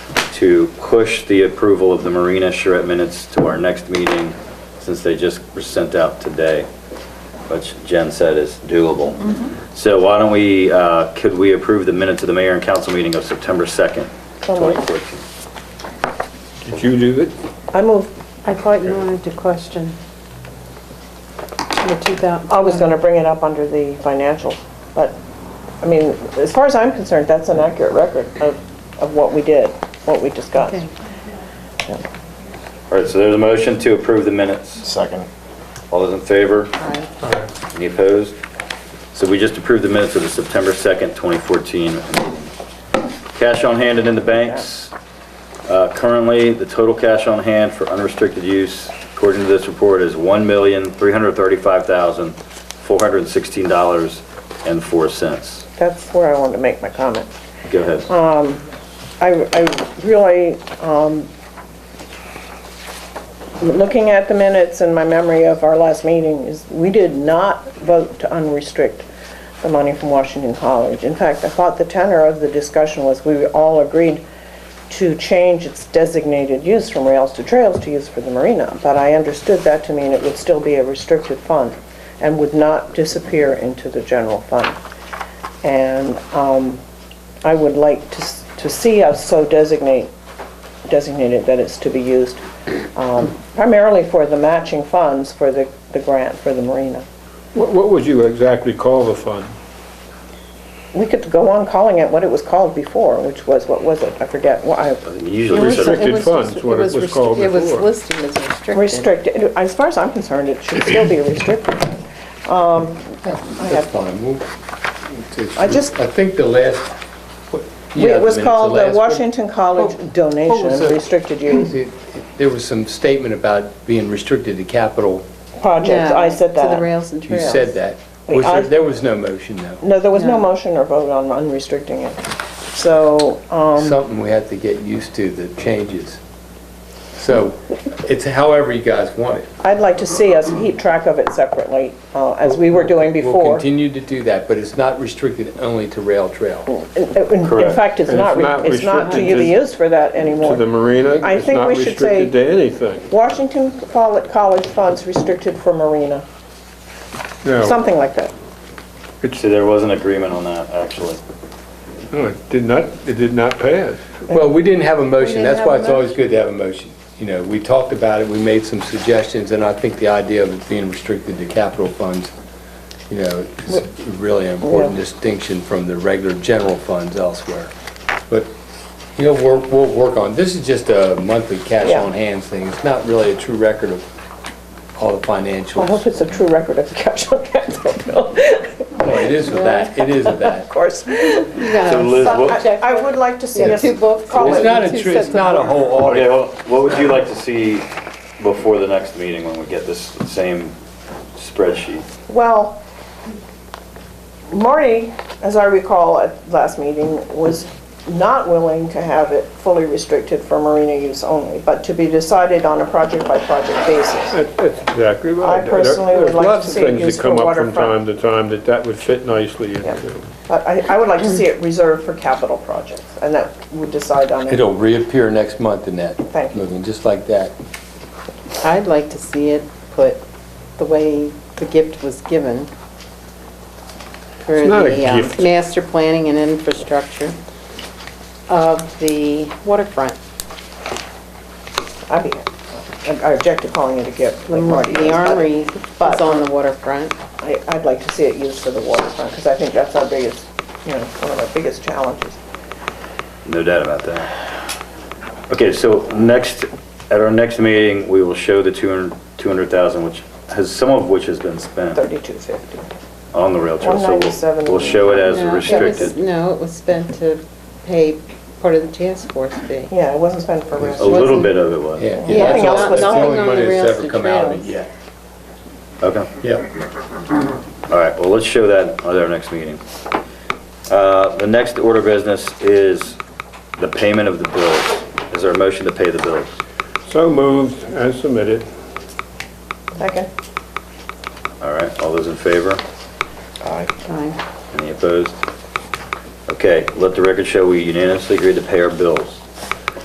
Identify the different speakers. Speaker 1: to push the approval of the Marina charrette minutes to our next meeting, since they just were sent out today, which Jen said is doable. So why don't we, uh, could we approve the minutes of the mayor and council meeting of September 2nd,
Speaker 2: So moved.
Speaker 1: 2014?
Speaker 3: Did you do it?
Speaker 2: I move,
Speaker 4: I thought you wanted to question. The 2000.
Speaker 2: I was going to bring it up under the financials, but, I mean, as far as I'm concerned, that's an accurate record of, of what we did, what we discussed.
Speaker 4: Okay.
Speaker 1: All right, so there's a motion to approve the minutes.
Speaker 5: Second.
Speaker 1: All those in favor?
Speaker 4: Aye.
Speaker 1: Any opposed? So we just approved the minutes of the September 2nd, 2014 meeting. Cash on hand and in the banks. Uh, Currently, the total cash on hand for unrestricted use, according to this report, is $1,335,416.04.
Speaker 2: That's where I wanted to make my comment.
Speaker 1: Go ahead.
Speaker 2: I, I really, um, looking at the minutes and my memory of our last meeting is, we did not vote to unrestrict the money from Washington College. In fact, I thought the tenor of the discussion was, we all agreed to change its designated use from rails to trails to use for the marina. But I understood that to mean it would still be a restricted fund and would not disappear into the general fund. And, um, I would like to, s- to see us so designate, designated that it's to be used um, primarily for the matching funds for the, the grant for the marina.
Speaker 3: What what would you exactly call the fund?
Speaker 2: We could go on calling it what it was called before, which was, what was it? I forget. Well, I-
Speaker 1: You Usually,
Speaker 4: It was-
Speaker 1: reserve-
Speaker 3: restricted
Speaker 4: it was-
Speaker 3: funds, what it was
Speaker 4: restri-
Speaker 3: called
Speaker 4: It was
Speaker 3: before.
Speaker 4: listed as restricted.
Speaker 2: Restricted, as far as I'm concerned, it should still be restricted.
Speaker 5: That's fine. We'll- it's-
Speaker 2: I just-
Speaker 5: I think the last. what- you have
Speaker 2: It was
Speaker 5: minutes,
Speaker 2: called the
Speaker 5: last one.
Speaker 2: Washington College Donation
Speaker 5: was
Speaker 2: and
Speaker 5: that?
Speaker 2: Restricted Use
Speaker 5: It- it- There was some statement about being restricted to capital.
Speaker 2: Project.
Speaker 4: Yeah,
Speaker 2: I said
Speaker 4: To the
Speaker 2: that.
Speaker 4: rails and
Speaker 5: You
Speaker 4: trails.
Speaker 5: said that.
Speaker 2: Wait,
Speaker 5: Was
Speaker 2: I-
Speaker 5: there, there was no motion though.
Speaker 2: No, there was
Speaker 4: Yeah.
Speaker 2: no motion or vote on unrestricting it. So, um,
Speaker 5: Something we have to get used to, the changes. So it's however you guys want it.
Speaker 2: I'd like to see us keep track of it separately, uh, as we were doing
Speaker 5: We'll
Speaker 2: before. In
Speaker 5: continue to do that, but it's not restricted only to rail trail.
Speaker 2: in- in
Speaker 1: Correct.
Speaker 2: fact, it's
Speaker 3: And
Speaker 2: not,
Speaker 3: it's not
Speaker 2: re- it's not to
Speaker 3: restricted
Speaker 2: be
Speaker 3: to-
Speaker 2: used for that
Speaker 3: To the
Speaker 2: anymore.
Speaker 3: marina?
Speaker 2: I think we should say-
Speaker 3: It's not restricted to anything.
Speaker 2: Washington Coll- College funds restricted for marina,
Speaker 3: No,
Speaker 2: something like that.
Speaker 1: see, there was an agreement on that, actually.
Speaker 3: no, it did not, it did not pass.
Speaker 5: Well, we didn't have a motion,
Speaker 4: didn't
Speaker 5: that's
Speaker 4: have
Speaker 5: why
Speaker 4: a
Speaker 5: it's always good to have a motion. You know, we talked about it, we made some suggestions, and I think the idea of it being restricted to capital funds, you know, is a really important
Speaker 2: Yeah.
Speaker 5: distinction from the regular general funds elsewhere. But, you know, we're, we'll work on, this is just a monthly cash
Speaker 2: Yeah.
Speaker 5: on hands thing, it's not really a true record of all the
Speaker 2: I hope
Speaker 5: financials.
Speaker 2: it's a true record of the cash on hand,
Speaker 5: Well, It is of that, it is of
Speaker 2: of
Speaker 5: that.
Speaker 2: course.
Speaker 4: You got
Speaker 1: So
Speaker 4: a
Speaker 1: Liz, what-
Speaker 2: I
Speaker 4: subject.
Speaker 2: I would like to see
Speaker 4: Yeah,
Speaker 2: us.
Speaker 4: two books.
Speaker 2: call
Speaker 5: It's
Speaker 2: it-
Speaker 5: not
Speaker 4: Two
Speaker 5: a true,
Speaker 4: sets
Speaker 5: it's
Speaker 4: of
Speaker 5: not a whole
Speaker 1: Okay,
Speaker 5: audit.
Speaker 1: well, what would you like to see before the next meeting when we get this same spreadsheet?
Speaker 2: Well, Marty, as I recall at last meeting, was not willing to have it fully restricted for marina use only, but to be decided on a project-by-project basis.
Speaker 3: That- That's exactly right.
Speaker 2: I
Speaker 3: There-
Speaker 2: personally would like to see it
Speaker 3: There's lots of things
Speaker 2: used
Speaker 3: that come
Speaker 2: for
Speaker 3: up from time
Speaker 2: waterfront.
Speaker 3: to time that that would fit nicely into.
Speaker 2: But I, I would like to see it reserved for capital projects, and that would decide on it.
Speaker 5: It'll reappear next month in that,
Speaker 2: Thank you.
Speaker 5: looking just like that.
Speaker 4: I'd like to see it put the way the gift was given for
Speaker 3: It's not a
Speaker 4: the um,
Speaker 3: gift.
Speaker 4: master planning and infrastructure of the waterfront.
Speaker 2: I mean, I I object to calling it a gift,
Speaker 4: The
Speaker 2: like
Speaker 4: mo-
Speaker 2: Marty does,
Speaker 4: Mm, the
Speaker 2: but
Speaker 4: armory is on the waterfront.
Speaker 2: I, I'd like to see it used for the waterfront, because I think that's our biggest, you know, one of our biggest challenges.
Speaker 1: No doubt about that. Okay, so next, at our next meeting, we will show the 200 200,000, which has, some of which has been spent
Speaker 2: 3250.
Speaker 1: on the rail trail. So we'll-
Speaker 2: 197.
Speaker 1: we'll show it as
Speaker 4: No, it was-
Speaker 1: restricted.
Speaker 4: No, it was spent to pay part of the task force fee.
Speaker 2: Yeah, it wasn't spent for
Speaker 1: A
Speaker 2: restaurants.
Speaker 1: little bit of it was.
Speaker 5: Yeah,
Speaker 2: Yeah,
Speaker 5: yeah, that's
Speaker 2: nothing
Speaker 5: all,
Speaker 2: else
Speaker 5: that's
Speaker 2: was
Speaker 5: the
Speaker 2: nothing
Speaker 5: only
Speaker 4: on the
Speaker 5: money that's
Speaker 4: rails
Speaker 5: ever
Speaker 4: to
Speaker 5: come out of it
Speaker 4: trails.
Speaker 5: yet.
Speaker 1: Okay,
Speaker 5: Yeah,
Speaker 1: all right, well, let's show that at our next meeting. Uh, The next order of business is the payment of the bills. Is there a motion to pay the bills?
Speaker 3: So moved and submitted.
Speaker 2: Second.
Speaker 1: All right, all those in favor?
Speaker 4: Aye.
Speaker 1: Any opposed? Okay, let the record show we unanimously agreed to pay our bills.